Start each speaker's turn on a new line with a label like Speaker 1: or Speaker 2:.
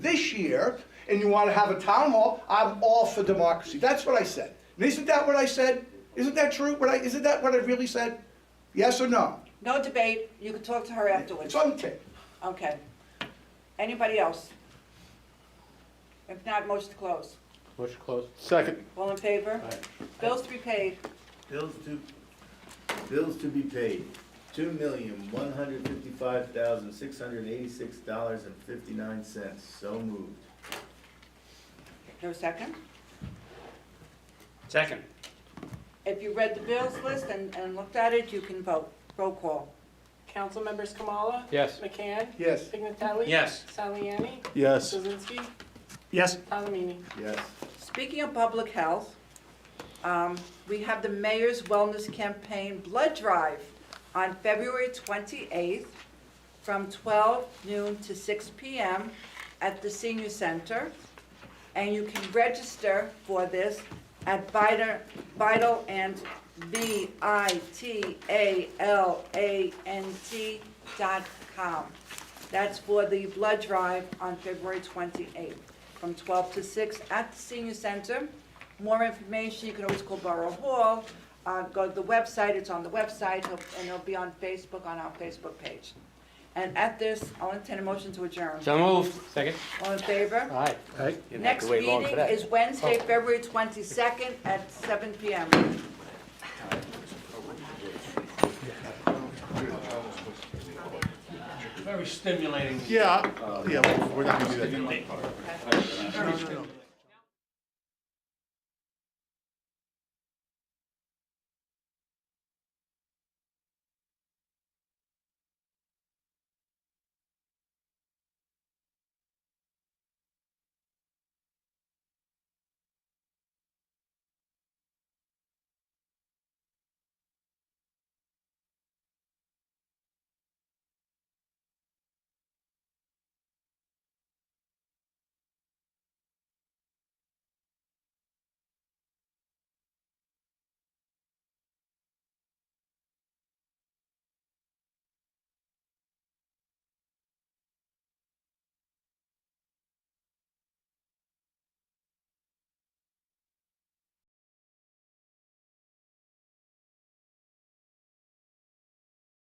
Speaker 1: year and you want to have a town hall, I'm all for democracy. That's what I said. And isn't that what I said? Isn't that true? What I, isn't that what I really said? Yes or no?
Speaker 2: No debate, you can talk to her afterwards.
Speaker 1: It's on tape.
Speaker 2: Okay. Anybody else? If not, motion to close.
Speaker 3: Motion closed.
Speaker 4: Second.
Speaker 2: All in favor? Bills to be paid,
Speaker 5: Bills to, bills to be paid, two million, one hundred fifty-five thousand, six hundred eighty-six dollars and fifty-nine cents, so moved.
Speaker 2: no second.
Speaker 3: Second.
Speaker 2: If you read the bills list and, and looked at it, you can vote. Roll call.
Speaker 6: Council members Kamala?
Speaker 3: Yes.
Speaker 6: McCann?
Speaker 1: Yes.
Speaker 6: Pignatelli?
Speaker 3: Yes.
Speaker 6: Saliani?
Speaker 4: Yes.
Speaker 6: Kuzinski?
Speaker 4: Yes.
Speaker 6: Palomini?
Speaker 5: Yes,
Speaker 2: Speaking of public health, um, we have the mayor's wellness campaign blood drive on February 28th from 12 noon to 6 p.m. at the senior center. And you can register for this at Vital, Vital and V-I-T-A-L-A-N-T dot com. That's for the blood drive on February 28th, from 12 to 6 at the senior center. More information, you can always call Borough Hall, uh, go to the website, it's on the website, and it'll be on Facebook, on our Facebook page. And at this, I'll entertain a motion to adjourn.
Speaker 3: So moved. Second.
Speaker 2: All in favor?
Speaker 3: Aye. Aye.
Speaker 2: Next meeting is Wednesday, February 22nd at 7 PM.
Speaker 4: Yeah, yeah, we're not gonna do that.